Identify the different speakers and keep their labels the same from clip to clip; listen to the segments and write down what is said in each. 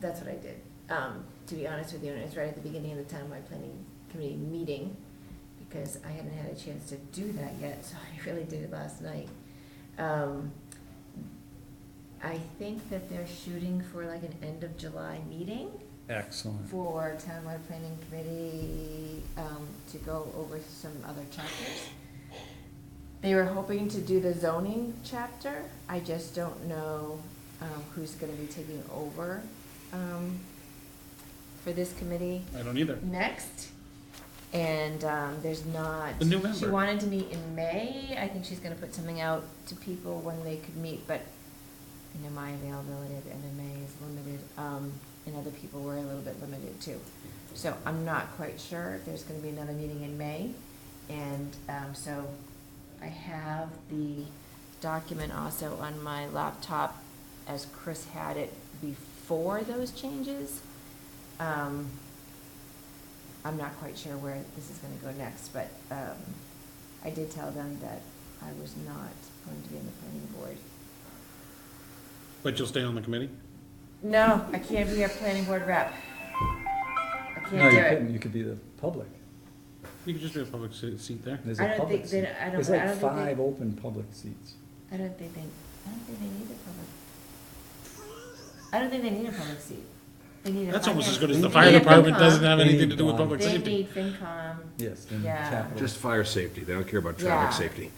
Speaker 1: that's what I did, um, to be honest with you, and it was right at the beginning of the townwide planning committee meeting, because I hadn't had a chance to do that yet, so I really did it last night. Um, I think that they're shooting for like an end of July meeting
Speaker 2: Excellent.
Speaker 1: for townwide planning committee, um, to go over some other chapters. They were hoping to do the zoning chapter, I just don't know, um, who's gonna be taking over, um, for this committee
Speaker 2: I don't either.
Speaker 1: next. And, um, there's not.
Speaker 2: The new
Speaker 1: She
Speaker 2: member.
Speaker 1: wanted to meet in May, I think she's gonna put something out to people when they could meet, but, you know, my availability at the end of May is limited, um, and other people were a little bit limited too. So I'm not quite sure, there's gonna be another meeting in May, and, um, so I have the document also on my laptop as Chris had it before those changes. Um, I'm not quite sure where this is gonna go next, but, um, I did tell them that I was not going to be on the planning board.
Speaker 2: But you'll stay on the committee?
Speaker 1: No, I can't be a planning board rep. I
Speaker 3: No,
Speaker 1: can't
Speaker 3: you
Speaker 1: do it.
Speaker 3: couldn't, you could be the public.
Speaker 2: You can just do a public se- seat there.
Speaker 3: There's
Speaker 1: I
Speaker 3: a
Speaker 1: don't
Speaker 3: public
Speaker 1: think
Speaker 3: seat.
Speaker 1: they- I don't-
Speaker 3: There's
Speaker 1: I
Speaker 3: like
Speaker 1: don't think they-
Speaker 3: five open public seats.
Speaker 1: I don't think they, I don't think they need a public. I don't think they need a public seat. They need a.
Speaker 2: That's almost as
Speaker 1: finance-
Speaker 2: good as the
Speaker 3: They
Speaker 2: fire
Speaker 1: need a
Speaker 2: department
Speaker 1: FinCom.
Speaker 2: doesn't have
Speaker 3: They
Speaker 2: anything
Speaker 3: need
Speaker 2: to do with
Speaker 3: bond.
Speaker 2: public
Speaker 1: They
Speaker 2: safety.
Speaker 1: need FinCom.
Speaker 3: Yes, and
Speaker 1: Yeah.
Speaker 3: capital.
Speaker 4: Just fire safety, they don't care about
Speaker 1: Yeah.
Speaker 4: traffic safety,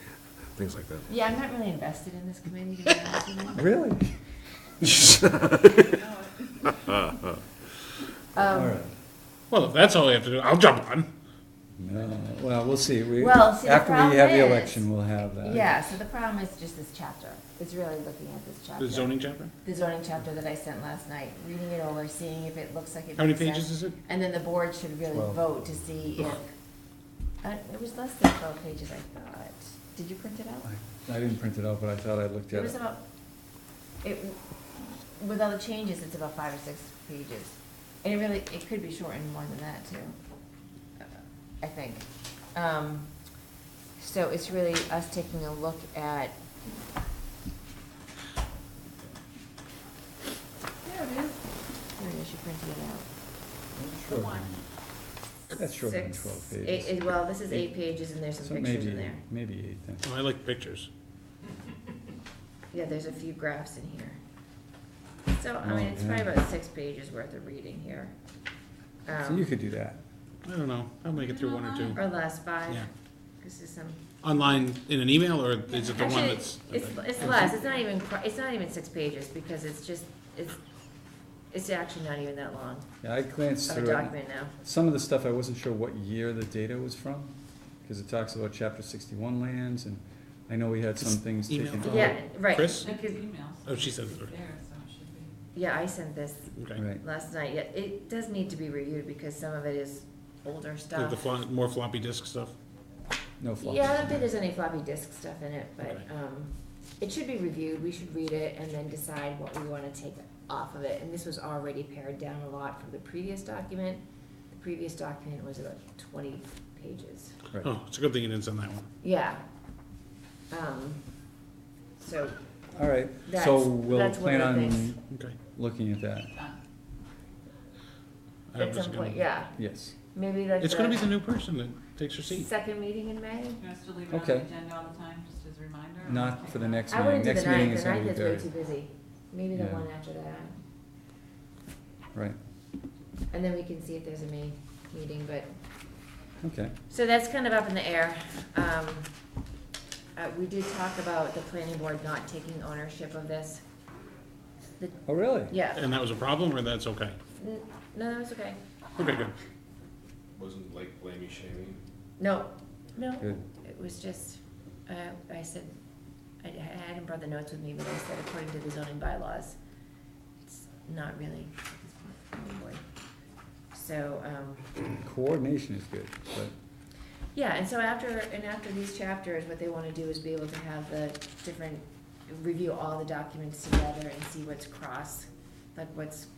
Speaker 4: things like that.
Speaker 1: Yeah, I'm not really invested in this committee, to be honest with you.
Speaker 3: Really? All
Speaker 1: Um,
Speaker 3: right.
Speaker 2: Well, if that's all we have to do, I'll jump on.
Speaker 3: No, well, we'll see. We,
Speaker 1: Well, see, the
Speaker 3: after we
Speaker 1: problem
Speaker 3: have the
Speaker 1: is-
Speaker 3: election, we'll have that.
Speaker 1: yeah, so the problem is just this chapter. It's really looking at this chapter.
Speaker 2: The zoning chapter?
Speaker 1: The zoning chapter that I sent last night, reading it over, seeing if it looks like it.
Speaker 2: How many
Speaker 1: makes sense.
Speaker 2: pages is it?
Speaker 1: And then the board should really
Speaker 3: Twelve.
Speaker 1: vote to see if, uh, it was less than twelve pages, I thought. Did you print it out?
Speaker 3: I- I didn't print it out, but I thought I looked
Speaker 1: It
Speaker 3: at
Speaker 1: was
Speaker 3: it.
Speaker 1: about, it, with all the changes, it's about five or six pages. And it really, it could be shortened more than that too, I think. Um, so it's really us taking a look at. There it is. There it is, you printed it out.
Speaker 3: Shorter than- That's shorter than
Speaker 1: Six,
Speaker 3: twelve
Speaker 1: eight-
Speaker 3: pages.
Speaker 1: eight- well, this is eight pages and there's
Speaker 3: So
Speaker 1: some pictures in
Speaker 3: maybe,
Speaker 1: there.
Speaker 3: maybe eight then.
Speaker 2: Oh, I like pictures.
Speaker 1: Yeah, there's a few graphs in here. So, I mean,
Speaker 3: Oh,
Speaker 1: it's probably
Speaker 3: yeah.
Speaker 1: about six pages worth of reading here.
Speaker 3: So you
Speaker 1: Um,
Speaker 3: could do that.
Speaker 2: I don't know. I'll make it through one or two.
Speaker 1: Or last five,
Speaker 2: Yeah.
Speaker 1: this is some.
Speaker 2: Online in an email or is it the one
Speaker 1: Actually,
Speaker 2: that's?
Speaker 1: It's, it's less, it's not even, qu- it's not even six pages, because it's just, it's, it's actually not even that long
Speaker 3: Yeah, I glanced
Speaker 1: of a
Speaker 3: through it.
Speaker 1: document now.
Speaker 3: Some of the stuff, I wasn't sure what year the data was from, because it talks about chapter sixty-one lands, and I know we had some
Speaker 2: Just
Speaker 3: things
Speaker 2: email
Speaker 3: taken
Speaker 2: it.
Speaker 3: out.
Speaker 1: Yeah, right.
Speaker 2: Chris?
Speaker 1: Because,
Speaker 2: Oh, she said it.
Speaker 5: There, so it should be.
Speaker 1: yeah, I sent this
Speaker 2: Okay.
Speaker 3: Right,
Speaker 1: last night, yeah, it does need to be reviewed, because some of it is older
Speaker 2: Like
Speaker 1: stuff.
Speaker 2: the flo- more floppy disk stuff?
Speaker 3: no flops.
Speaker 1: Yeah, I don't think there's any floppy disk stuff in it, but,
Speaker 2: Okay.
Speaker 1: um, it should be reviewed, we should read it and then decide what we wanna take off of it, and this was already pared down a lot from the previous document. The previous document was about twenty pages,
Speaker 3: Right.
Speaker 2: Oh, it's a good thing you didn't send that one.
Speaker 1: yeah. Um, so,
Speaker 3: All right,
Speaker 1: That's-
Speaker 3: so we'll
Speaker 1: that's one of
Speaker 3: plan
Speaker 1: the
Speaker 3: on
Speaker 1: things.
Speaker 2: Okay.
Speaker 3: looking at that,
Speaker 2: I
Speaker 1: at
Speaker 2: was
Speaker 1: some
Speaker 2: gonna-
Speaker 1: point, yeah,
Speaker 3: yes.
Speaker 1: maybe like
Speaker 2: It's gonna be
Speaker 1: the
Speaker 2: the new person that takes your seat.
Speaker 1: second meeting in May?
Speaker 5: You want us to leave it on
Speaker 3: Okay.
Speaker 5: the agenda all the time, just as a reminder? or
Speaker 3: Not
Speaker 5: take
Speaker 3: for the
Speaker 5: it out?
Speaker 3: next
Speaker 1: I
Speaker 3: meeting,
Speaker 1: wouldn't do the
Speaker 3: next meeting
Speaker 1: ninth,
Speaker 3: is
Speaker 1: the
Speaker 3: gonna
Speaker 1: ninth
Speaker 3: be
Speaker 1: is way
Speaker 3: very,
Speaker 1: too busy, maybe the
Speaker 3: Yeah.
Speaker 1: one after that.
Speaker 3: right,
Speaker 1: And then we can see if there's a May meeting, but
Speaker 3: okay,
Speaker 1: So that's kind of up in the air. Um, uh, we did talk about the planning board not taking ownership of this.
Speaker 3: oh, really?
Speaker 1: Yeah,
Speaker 2: And that was a problem or that's okay?
Speaker 1: N- no, that was okay.
Speaker 2: Okay, good.
Speaker 4: Wasn't like blaming shaming?
Speaker 1: No, no,
Speaker 3: Good.
Speaker 1: it was just, uh, I said, I, I hadn't brought the notes with me, but I said according to the zoning bylaws, it's not really planning board. So, um,
Speaker 3: Coordination is good, but
Speaker 1: Yeah, and so after, and after these chapters, what they wanna do is be able to have the different, review all the documents together and see what's cross, like what's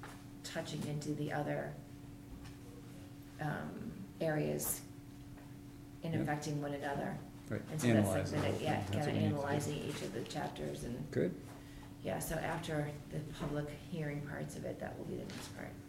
Speaker 1: touching into the other, um, areas and
Speaker 3: Yeah.
Speaker 1: affecting one another.
Speaker 3: Right,
Speaker 1: And so that's
Speaker 3: analyze
Speaker 1: like,
Speaker 3: the whole
Speaker 1: the-
Speaker 3: thing.
Speaker 1: yeah,
Speaker 3: That's
Speaker 1: kinda
Speaker 3: what we need to do.
Speaker 1: analyzing each of the chapters and
Speaker 3: Good,
Speaker 1: Yeah, so after the public hearing parts of it, that will be the next part.